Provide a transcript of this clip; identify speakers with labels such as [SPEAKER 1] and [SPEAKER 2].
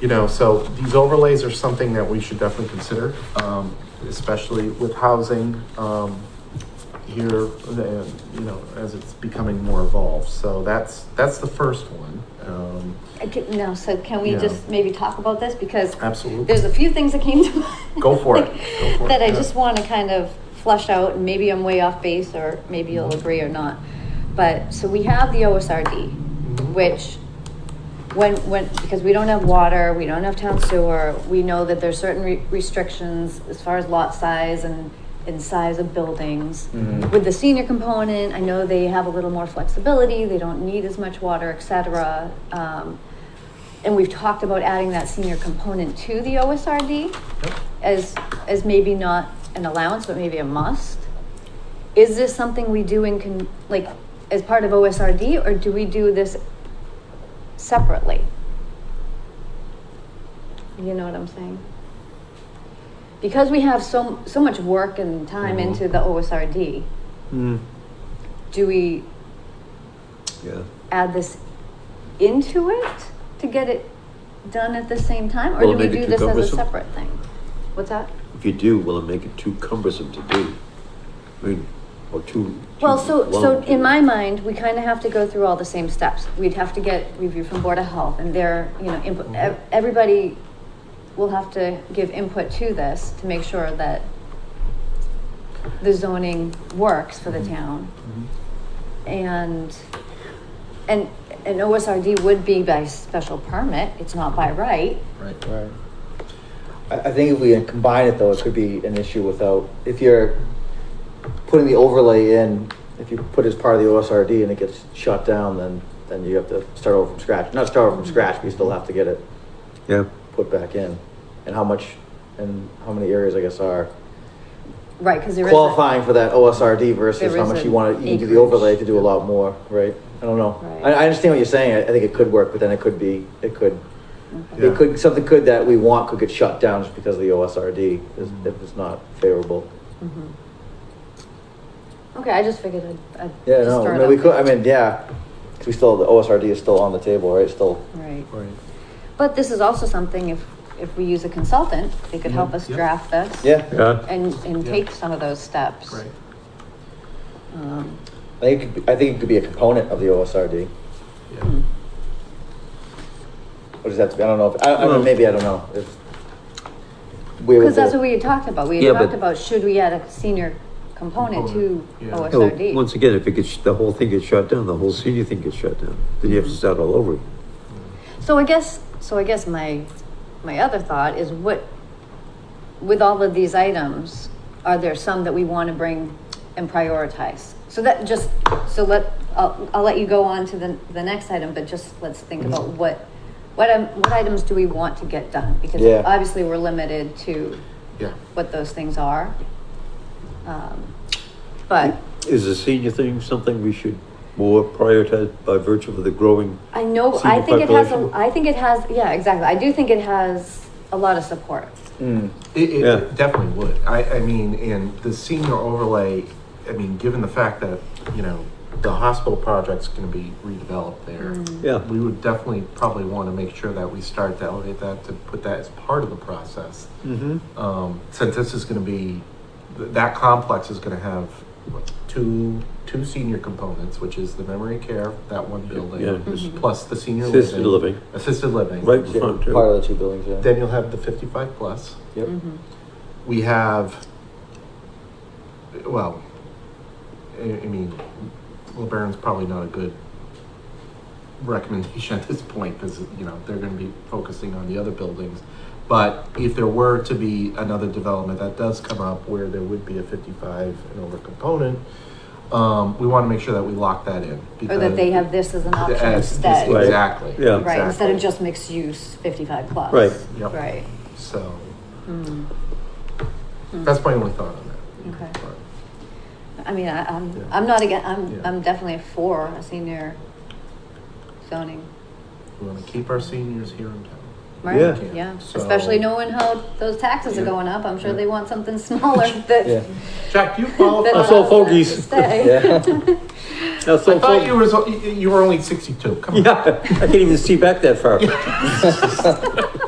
[SPEAKER 1] you know, so these overlays are something that we should definitely consider, um, especially with housing, um, here, the- you know, as it's becoming more evolved. So that's, that's the first one. Um,
[SPEAKER 2] I can, no, so can we
[SPEAKER 1] Yeah.
[SPEAKER 2] just maybe talk about this? Because
[SPEAKER 1] absolutely.
[SPEAKER 2] there's a few things that came to mind.
[SPEAKER 1] Go for it.
[SPEAKER 2] like,
[SPEAKER 1] Go for it.
[SPEAKER 2] That I
[SPEAKER 1] Yeah.
[SPEAKER 2] just want to kind of flush out, and maybe I'm way off base, or maybe you'll
[SPEAKER 1] Mm-hmm.
[SPEAKER 2] agree or not. But, so we have the OSRD,
[SPEAKER 1] Mhm.
[SPEAKER 2] which when, when, because we don't have water, we don't have town sewer, we know that there's certain re- restrictions as far as lot size and, and size of buildings.
[SPEAKER 1] Mhm.
[SPEAKER 2] With the senior component, I know they have a little more flexibility, they don't need as much water, et cetera. Um, and we've talked about adding that senior component to the OSRD
[SPEAKER 1] Yep.
[SPEAKER 2] as, as maybe not an allowance, but maybe a must. Is this something we do in, con- like, as part of OSRD, or do we do this separately? You know what I'm saying? Because we have so, so much work and time
[SPEAKER 1] Mhm.
[SPEAKER 2] into the OSRD,
[SPEAKER 3] Mm,
[SPEAKER 2] do we
[SPEAKER 3] yeah.
[SPEAKER 2] add this into it to get it done at the same time, or
[SPEAKER 3] Will
[SPEAKER 2] do
[SPEAKER 3] it
[SPEAKER 2] we
[SPEAKER 3] make it
[SPEAKER 2] do
[SPEAKER 3] too
[SPEAKER 2] this as a
[SPEAKER 3] cumbersome?
[SPEAKER 2] separate thing? What's that?
[SPEAKER 3] If you do, will it make it too cumbersome to do? I mean, or too.
[SPEAKER 2] Well,
[SPEAKER 3] too
[SPEAKER 2] so, so
[SPEAKER 3] long to
[SPEAKER 2] in
[SPEAKER 3] do?
[SPEAKER 2] my mind, we kind of have to go through all the same steps. We'd have to get review from Board of Health and their, you know,
[SPEAKER 4] Mm-hmm.
[SPEAKER 2] input, ev- everybody will have to give input to this to make sure that the zoning works for
[SPEAKER 4] Mm-hmm.
[SPEAKER 2] the town.
[SPEAKER 1] Mm-hmm.
[SPEAKER 2] And, and, and OSRD would be by special permit, it's not by right.
[SPEAKER 1] Right.
[SPEAKER 4] Right. I, I think if we combine it though, it could be an issue without, if you're putting the overlay in, if you put it as part of the OSRD and it gets shut down, then, then you have to start over from scratch. Not start over from scratch, but you still have to get it
[SPEAKER 3] Yeah.
[SPEAKER 4] put back in. And how much, and how many areas, I guess, are
[SPEAKER 2] Right, because there is. a-
[SPEAKER 4] qualifying for that OSRD versus
[SPEAKER 2] There
[SPEAKER 4] how
[SPEAKER 2] is
[SPEAKER 4] much
[SPEAKER 2] a
[SPEAKER 4] you want to, you can do the
[SPEAKER 2] acreage.
[SPEAKER 4] overlay to do a lot more, right? I don't know. I,
[SPEAKER 2] Right.
[SPEAKER 4] I understand what you're saying. I, I think it could work, but then it could be, it could
[SPEAKER 2] Okay.
[SPEAKER 1] Yeah.
[SPEAKER 4] It could, something could that we want could get shut down just because of the OSRD, is- if it's not favorable.
[SPEAKER 2] Mhm. Okay, I just figured I'd. I'd
[SPEAKER 4] Yeah,
[SPEAKER 2] just
[SPEAKER 4] no,
[SPEAKER 2] throw it
[SPEAKER 4] I mean,
[SPEAKER 2] out
[SPEAKER 4] we could, I
[SPEAKER 2] there.
[SPEAKER 4] mean, yeah, 'cause we still, the OSRD is still on the table, right, still.
[SPEAKER 2] Right.
[SPEAKER 1] Right.
[SPEAKER 2] But this is also something if, if we use a consultant, they could help
[SPEAKER 1] Mhm.
[SPEAKER 2] us
[SPEAKER 1] Yep.
[SPEAKER 2] draft this.
[SPEAKER 4] Yeah,
[SPEAKER 3] Yeah.
[SPEAKER 2] And, and
[SPEAKER 1] Yeah.
[SPEAKER 2] take some of those steps.
[SPEAKER 1] Right.
[SPEAKER 2] Um,
[SPEAKER 4] I think, it could be- I think it could be a component of the OSRD,
[SPEAKER 1] Yeah.
[SPEAKER 2] hmm.
[SPEAKER 4] or does that, I don't know, if- I, I
[SPEAKER 3] Well-
[SPEAKER 4] mean, maybe, I don't know, if. we would
[SPEAKER 2] Cause that's
[SPEAKER 4] do-
[SPEAKER 2] what we had talked about. We
[SPEAKER 3] Yeah,
[SPEAKER 2] had
[SPEAKER 3] but-
[SPEAKER 2] talked about, should we add a senior component to
[SPEAKER 1] Component, yeah.
[SPEAKER 3] Oh,
[SPEAKER 2] OSRD?
[SPEAKER 3] once again, if it gets, the whole thing gets shut down, the whole senior thing gets shut down, then you have to
[SPEAKER 2] Mm-hmm.
[SPEAKER 3] start all over.
[SPEAKER 2] So I guess, so I guess my, my other thought is what, with all of these items, are there some that we want to bring and prioritize? So that just, so let, I'll, I'll let you go on to the, the next item, but just let's think about what, what, im- what items do we want to get done? Because
[SPEAKER 4] Yeah.
[SPEAKER 2] obviously we're limited to
[SPEAKER 1] Yeah.
[SPEAKER 2] what those things are. Um, But
[SPEAKER 3] Is the senior thing something we should more prioritize by virtue of the growing?
[SPEAKER 2] I know, I
[SPEAKER 3] senior
[SPEAKER 2] think it has, a-
[SPEAKER 3] population?
[SPEAKER 2] I think it has, yeah, exactly. I do think it has a lot of support.
[SPEAKER 4] Mm,
[SPEAKER 1] It, it
[SPEAKER 3] Yeah.
[SPEAKER 1] definitely would. I, I mean, and the senior overlay, I mean, given the fact that, you know, the hospital project's gonna be redeveloped there,
[SPEAKER 2] Hmm. Mm.
[SPEAKER 3] Yeah.
[SPEAKER 1] we would definitely probably wanna make sure that we start to elevate that, to put that as part of the process.
[SPEAKER 3] Mm-hmm.
[SPEAKER 1] Um, since this is gonna be, th- that complex is gonna have what, two, two senior components, which is the memory care, that one
[SPEAKER 3] Yeah.
[SPEAKER 1] building,
[SPEAKER 3] Mhm.
[SPEAKER 1] plus the
[SPEAKER 2] Mm-hmm.
[SPEAKER 1] senior living.
[SPEAKER 3] Assisted living,
[SPEAKER 1] Assisted living.
[SPEAKER 3] right in
[SPEAKER 4] yeah,
[SPEAKER 3] front, too.
[SPEAKER 4] Part of the two buildings, yeah.
[SPEAKER 1] Then you'll have the fifty-five plus.
[SPEAKER 4] Yep.
[SPEAKER 2] Mm-hmm.
[SPEAKER 1] we have, well, I, I mean, LeBaron's probably not a good recommendation at this point because, you know, they're going to be focusing on the other buildings. But if there were to be another development that does come up where there would be a 55 and over component, um, we want to make sure that we lock that in.
[SPEAKER 2] Or that they have this as an option
[SPEAKER 1] As-
[SPEAKER 2] instead,
[SPEAKER 3] Right.
[SPEAKER 1] Exactly.
[SPEAKER 3] Yeah.
[SPEAKER 2] right, instead
[SPEAKER 1] exactly.
[SPEAKER 2] of just mixed use fifty-five plus.
[SPEAKER 3] Right.
[SPEAKER 1] Yep.
[SPEAKER 2] Right, Hmm.
[SPEAKER 1] So that's my only thought on that.
[SPEAKER 2] okay.
[SPEAKER 1] But-
[SPEAKER 2] I mean, I,
[SPEAKER 1] Yeah.
[SPEAKER 2] I'm, I'm not again,
[SPEAKER 1] Yeah.
[SPEAKER 2] I'm, I'm definitely for a senior zoning,
[SPEAKER 1] We want to keep our seniors here in town.
[SPEAKER 2] right?
[SPEAKER 3] Yeah.
[SPEAKER 2] Yeah,
[SPEAKER 1] So-
[SPEAKER 2] especially knowing how those taxes are
[SPEAKER 1] Yeah.
[SPEAKER 2] going up, I'm sure
[SPEAKER 1] Yeah.
[SPEAKER 2] they want something smaller
[SPEAKER 4] Yeah.
[SPEAKER 2] that.
[SPEAKER 1] Jack, you
[SPEAKER 2] that
[SPEAKER 1] qualify.
[SPEAKER 3] That's all
[SPEAKER 2] allows them to
[SPEAKER 3] fogies.
[SPEAKER 2] stay.
[SPEAKER 4] Yeah,
[SPEAKER 3] That's
[SPEAKER 1] I
[SPEAKER 3] so
[SPEAKER 1] thought you
[SPEAKER 3] funny.
[SPEAKER 1] were, so- you you were only sixty-two, come on.
[SPEAKER 3] Yeah, I can't even see back that far.